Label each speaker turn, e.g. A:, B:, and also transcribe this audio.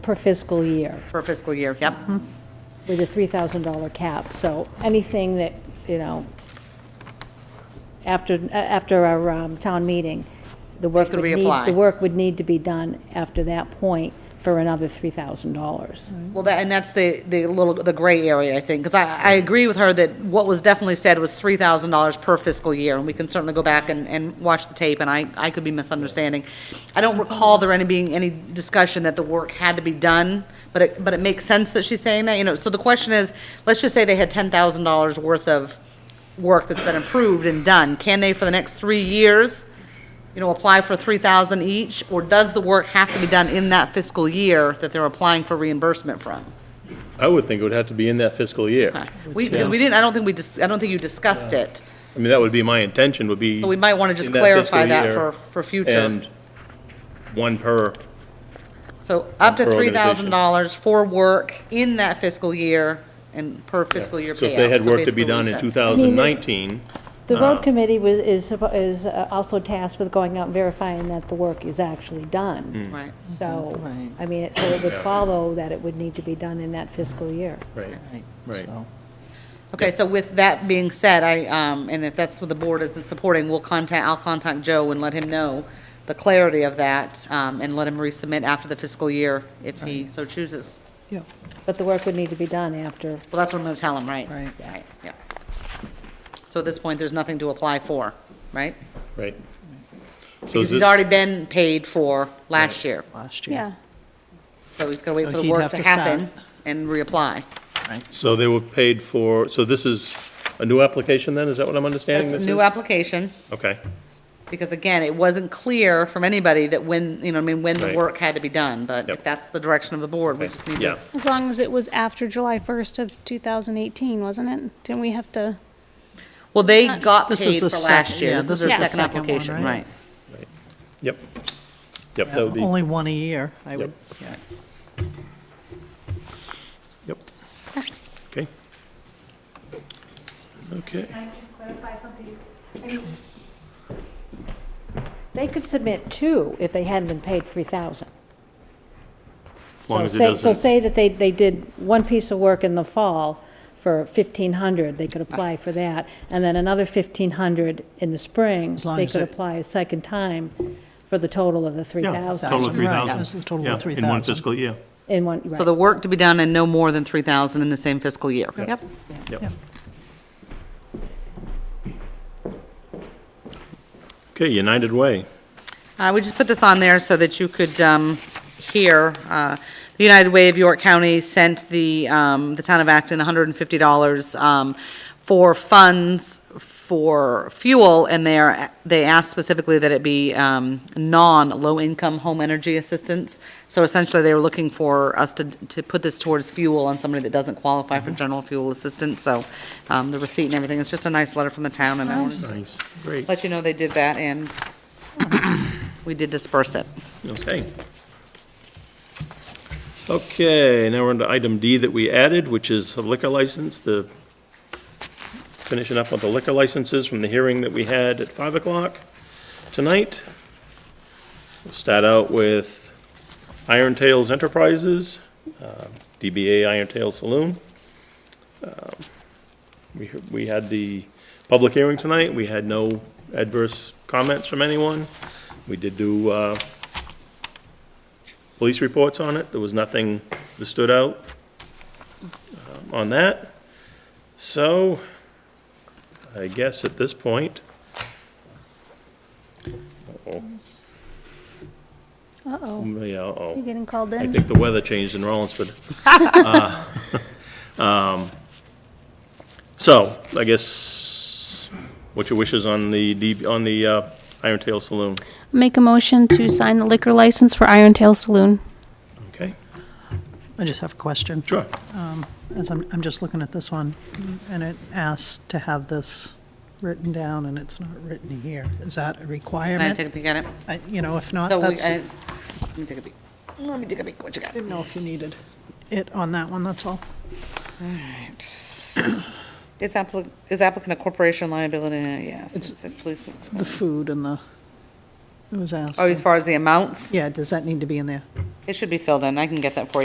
A: per fiscal year
B: per fiscal year, yep.
A: with a $3,000 cap. So anything that, you know, after, a- after our um, town meeting, the work
B: could
A: would need,
B: reapply.
A: the work would need to be done after that point for another $3,000.
B: Well, that, and that's the, the little, the gray area, I think, because I, I agree with her that what was definitely said was three thousand dollars per fiscal year, and we can certainly go back and, and watch the tape, and I, I could be misunderstanding. I don't recall there any being any discussion that the work had to be done, but it, but it makes sense that she's saying that, you know, so the question is, let's just say they had ten thousand dollars worth of work that's been approved and done, can they for the next three years, you know, apply for three thousand each, or does the work have to be done in that fiscal year that they're applying for reimbursement from?
C: I would think it would have to be in that fiscal year.
B: Okay. We, because we didn't, I don't think we, dis- I don't think you discussed it.
C: I mean, that would be my intention, would be.
B: So we might wanna just
C: in that fiscal
B: clarify that
C: year
B: for- for future.
C: And one per,
B: So up to
C: Per
B: three
C: organization.
B: thousand dollars for work in that fiscal year and per fiscal year payout.
C: so if they had work to
B: basically
C: be done in
B: what
C: 2019,
A: The road committee was, is, suppo- is uh, also tasked with going out and verifying that the work is actually
B: we
A: done.
B: said. Right.
A: So,
D: Right.
A: I mean, it- so it would follow that it would need to be done in that fiscal year.
C: right, Right.
D: So,
B: Okay, so with that being said, I, um, and if that's what the board isn't supporting, we'll contact, I'll contact Joe and let him know the clarity of that, um, and let him resubmit after the fiscal year if he so chooses.
D: yeah,
A: But the work would need to be done after.
B: Well, that's what I'm gonna tell him, right?
D: Right.
B: Yeah. So at this point, there's nothing to apply for, right?
C: right. So is
B: Because he's
C: this-
B: already been paid for last year,
D: last year.
B: so he's gonna wait
D: So
B: for the
D: he'd
B: work
D: have
B: to
D: to start.
B: happen and reapply.
C: So they were paid for, so this is a new application then, is that what I'm understanding
B: That's
C: this
B: a
C: is?
B: new application,
C: Okay,
B: because again, it wasn't clear from anybody that when, you know, I mean, when the
C: Right.
B: work had to be done, but if
C: Yep.
B: that's the direction of the board, we
C: okay,
B: just need to.
C: yeah,
E: As long as it was after July 1st of 2018, wasn't it? Didn't we have to,
B: Well, they got
D: This
B: paid
D: is
B: for
D: the
B: last
D: sec-
B: year.
D: yeah,
B: This is their second
D: one,
B: application, right?
D: right?
C: yep. Yep, that would be,
D: Only one a year, I would, yeah.
C: yep. Okay. Okay,
E: Can I just clarify something?
A: They could submit two if they hadn't been paid 3,000.
C: as long as
A: So
C: it
A: say- So
C: doesn't,
A: say that they, they did one piece of work in the fall for 1,500, they could apply for that, and then another 1,500 in the spring,
D: long
A: they
D: as
A: could
D: it-
A: apply a second time for the total of the
F: Yeah,
A: 3,000.
F: total of
D: Right,
F: 3,000.
D: that's the total of
F: Yeah, In
D: 3,000.
F: one fiscal year.
A: In one, right.
B: So the work to be done and no more than 3,000 in the same fiscal year. Yep.
C: yep. Okay, United Way.
B: Uh, we just put this on there so that you could, um, hear, uh, the United Way of York County sent the, um, the town of Acton hundred and fifty dollars, um, for funds for fuel, and they are, they asked specifically that it be, um, non-low-income home energy assistance. So essentially, they were looking for us to, to put this towards fuel on somebody that doesn't qualify for general fuel assistance, so, um, the receipt and everything, it's just a nice letter from the town, and I wanted to
C: Nice, great,
B: let you know they did that, and we did disperse it.
C: okay. Okay, now we're on to item D that we added, which is a liquor license, the, finishing up with the liquor licenses from the hearing that we had at 5 o'clock tonight. We'll Start out with Iron Tales Enterprises, uh, DBA Iron Tail Saloon. Um, We, we had the public hearing tonight, we had no adverse comments from anyone. We did do uh, police reports on it. There was nothing that stood out um, on that. So I guess at this point, uh-oh,
E: Uh-oh,
C: yeah, uh-oh.
E: you getting called
C: I
E: in?
C: think the weather changed in Rollinsford. Uh, um, So, I guess, what's your wishes on the, D- on the uh, Iron Tail Saloon?
E: Make a motion to sign the liquor license for Iron Tail Saloon.
C: Okay,
D: I just have a question. Um,
C: sure.
D: As I'm, I'm just looking at this one, and it asks to have this written down, and it's not written here. Is that a
B: Can I
D: requirement?
B: take a peek at it?
D: I- You know, if not,
B: So we-
D: Uh, that's,
B: I- Let me take a peek. Let me take a peek, what you got?
D: didn't know if you needed it on that one, that's all.
B: Is applicant, is applicant a corporation liability? Yes, it says police.
D: The food and the, It was asked.
B: Oh, as far as the amounts?
D: Yeah, does that need to be in there?
B: It should be filled in. I can get that for you.